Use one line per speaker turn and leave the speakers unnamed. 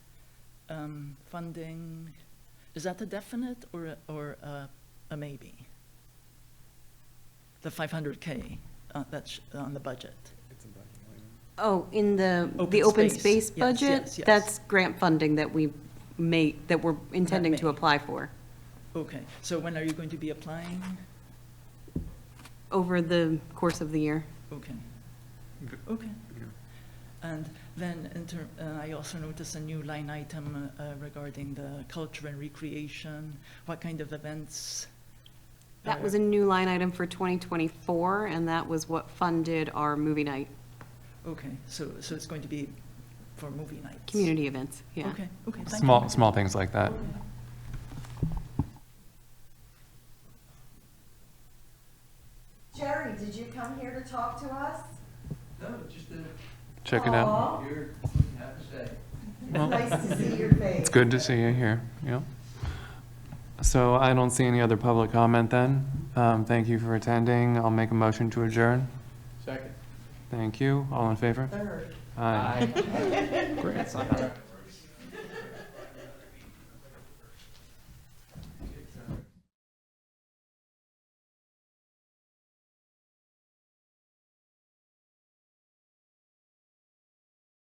um, funding, is that a definite or, a- or a, a maybe? The five hundred K, uh, that's on the budget.
It's in black and white.
Oh, in the,
Open
the open
space.
space
Yes,
budget?
yes, yes.
That's grant funding that we may, that we're intending to
may.
apply for
Okay, so when are you going to be applying?
over the course of the year.
Okay,
Okay.
okay.
Yeah.
And then, in ter- uh, I also noticed a new line item uh, uh, regarding the culture and recreation. What kind of events?
That
uh,
was a new line item for 2024, and that was what funded our movie night,
Okay, so, so it's going to be for movie nights?
community events, yeah.
Okay, okay, thank you.
Small, small things like that.
Jerry, did you come here to talk to us?
No, just a,
Check it out.
Aw,
you're, you have to say.
Well,
Nice to see your face.
It's good to see you here, yeah. So I don't see any other public comment then. Um, Thank you for attending. I'll make a motion to adjourn.
Second.
Thank you. All in favor?
Third.
Aye.
Great.